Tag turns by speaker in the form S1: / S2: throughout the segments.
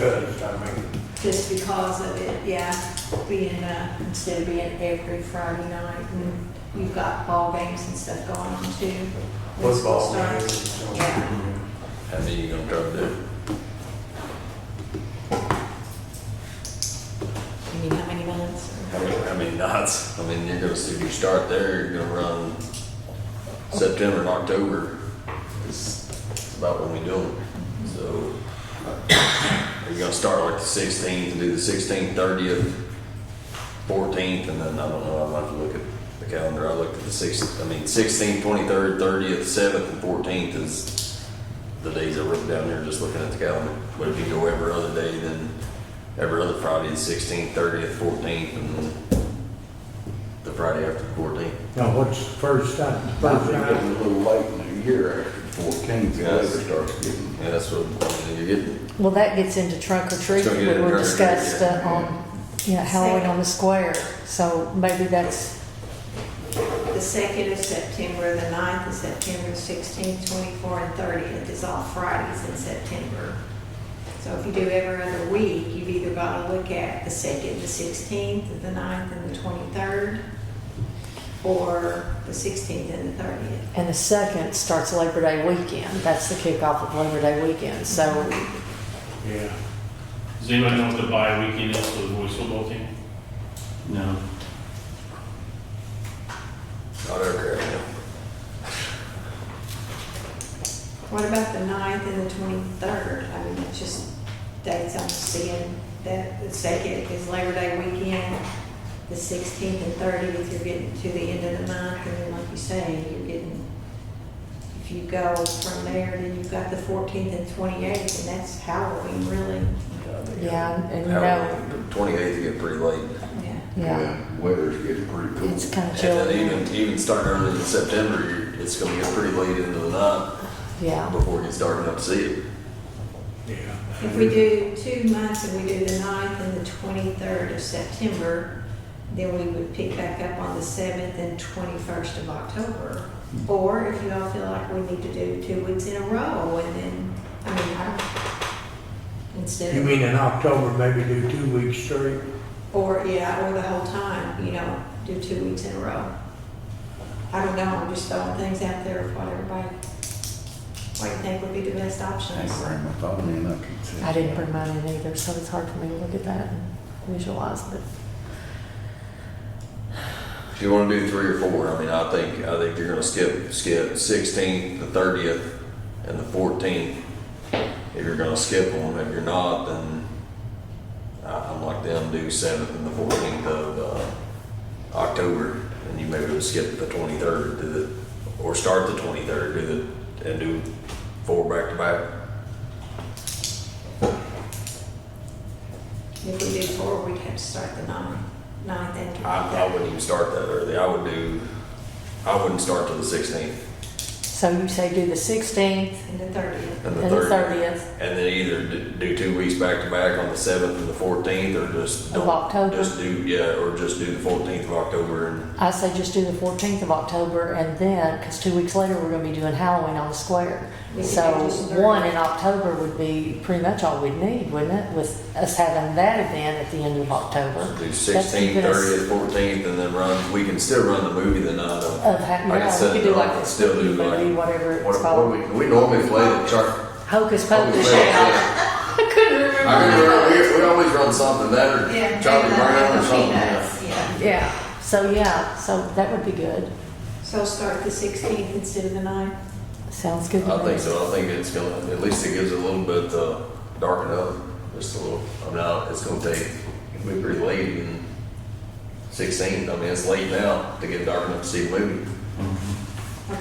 S1: judged, I mean,
S2: just because of it, yeah, being, uh, instead of being every Friday night, and you've got ball games and stuff going on too. when school
S1: football games. and
S2: starts.
S1: so on.
S2: Yeah.
S3: How many you gonna drop there?
S4: You mean how many minutes?
S3: How many, how many knots? I mean, you're gonna, if you start there, you're gonna run September and October. It's it's about when we do them, so. Are you gonna start like the sixteenth and do the sixteenth, thirtieth, fourteenth, and then, I don't know, I'll have to look at the calendar. I looked at the sixth, I mean, sixteenth, twenty-third, thirtieth, seventh, and fourteenth is the days I wrote down there, just looking at the calendar. But if you go every other day, then every other Friday, the sixteenth, thirtieth, fourteenth, and then the Friday after the fourteenth.
S5: Now, what's the first time,
S6: I
S5: first
S6: think it's
S5: night?
S6: a little late in the year after fourteenth, the weather starts getting.
S3: Yeah, that's what I mean, you're getting.
S4: Well, that gets into trunk or treat,
S3: It's gonna get
S4: we were
S3: into trunk or treat,
S4: discussed
S3: yeah.
S4: uh, on, you know, Halloween on the square. So maybe that's,
S2: The second of September, the ninth of September, sixteenth, twenty-four, and thirtieth is all Fridays in September. So if you do every other week, you've either got to look at the second, the sixteenth, the ninth, and the twenty-third, or the sixteenth and the thirtieth.
S4: and the second starts Labor Day weekend. That's the kickoff of Labor Day weekend. So
S5: Yeah.
S7: Does anybody know what the bye weekend is for the boys football team? No.
S3: Not ever, yeah.
S2: What about the 9th and the twenty-third? I mean, it's just dates I'm seeing, that the second is Labor Day weekend, the sixteenth and thirtieth, you're getting to the end of the month, and then like you say, you're getting, if you go from there, then you've got the fourteenth and twenty-eighth, and that's Halloween, really.
S4: Yeah, and you know-
S3: Twenty-eighth, you get pretty late.
S2: Yeah.
S4: yeah,
S6: Weather's getting pretty cool.
S4: it's kind of
S3: And then
S4: chilly.
S3: even, even starting early in September, you're- it's gonna get pretty late into the night
S4: Yeah,
S3: before you start getting up to see it.
S5: Yeah.
S2: If we do two months and we do the 9th and the twenty-third of September, then we would pick back up on the seventh and twenty-first of October. Or if you all feel like we need to do two weeks in a row and then, I mean, I, instead
S5: You
S2: of,
S5: mean in October, maybe do two weeks straight?
S2: or, yeah, or the whole time, you know, do two weeks in a row. I don't know, I'm just throwing things out there of what everybody, what you think would be the best
S6: I
S2: options.
S6: ain't bring my phone in, I can see.
S4: I didn't bring mine in either, so it's hard for me to look at that and visualize it.
S3: If you wanna do three or four, I mean, I think, I think you're gonna skip, skip sixteenth, the thirtieth, and the fourteenth. If you're gonna skip them, if you're not, then I- I'm like them, do seventh and the fourteenth of, uh, October. And you maybe would skip the twenty-third, do the, or start the twenty-third, do the, and do four back to back.
S2: If we do four, we'd have to start the 9th, 9th and
S3: I, I
S2: 23rd.
S3: wouldn't even start that early. I would do, I wouldn't start till the sixteenth
S4: So you say do the 16th
S2: And the 30th.
S3: and the
S4: and the
S3: thirtieth.
S4: 30th.
S3: And then either d- do two weeks back to back on the seventh and the fourteenth, or just
S4: Of
S3: don't.
S4: October.
S3: Just do, yeah, or just do the fourteenth of October and,
S4: I say just do the 14th of October and then, because two weeks later, we're going to be doing Halloween on the square.
S2: We could
S4: So
S2: do just thirty.
S4: one in October would be pretty much all we'd need, wouldn't it? With us having that event at the end of October.
S3: do
S4: keeping
S3: sixteenth,
S4: us-
S3: thirtieth, fourteenth, and then run, we can still run the movie the night of.
S4: Of ha-
S3: Like I
S4: yeah,
S3: said,
S4: we could do
S3: I
S4: like
S3: could
S4: a
S3: still do
S4: spooky movie,
S3: like-
S4: whatever it's
S3: What, what
S4: called.
S3: we, we normally play the char.
S4: Hocus
S3: what we
S4: Pocus.
S3: play-
S4: yeah. I couldn't remember.
S3: I mean, we, we always run something, that or Charlie Brown or something.
S2: yeah.
S3: yeah.
S4: Yeah. So yeah. So that would be good.
S2: So start the 16th instead of the 9th?
S4: Sounds good. to
S3: I
S4: me.
S3: think so. I think it's gonna, at least it gives it a little bit, uh, darken up, just a little. I mean, I- it's gonna take, it'll be pretty late in sixteen. I mean, it's late now to get dark enough to see a movie.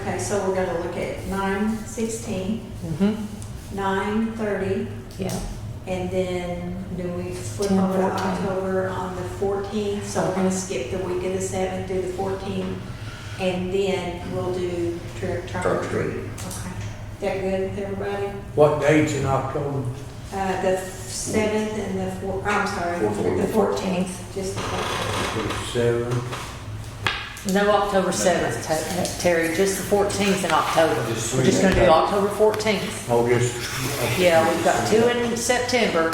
S2: Okay, so we're gonna look at 9, 16,
S4: Mhm.
S2: 9, 30,
S4: Yeah.
S2: and then do we flip
S4: Ten,
S2: over to
S4: 14.
S2: October on the 14th? So we're gonna
S4: Mhm.
S2: skip the week of the 7th, do the 14th, and then we'll do trick, try.
S3: Trick or treat.
S2: Okay. That good with everybody?
S5: What dates in October?
S2: Uh, the 7th and the 4, I'm sorry. The
S3: Fourteenth.
S2: 14th, just the 14th.
S5: Seven.
S4: No October seventh, Te- Terry. Just the fourteenth in October.
S5: Just
S4: We're just
S5: three.
S4: going to do October fourteenth.
S5: August.
S4: Yeah, we've got two in September,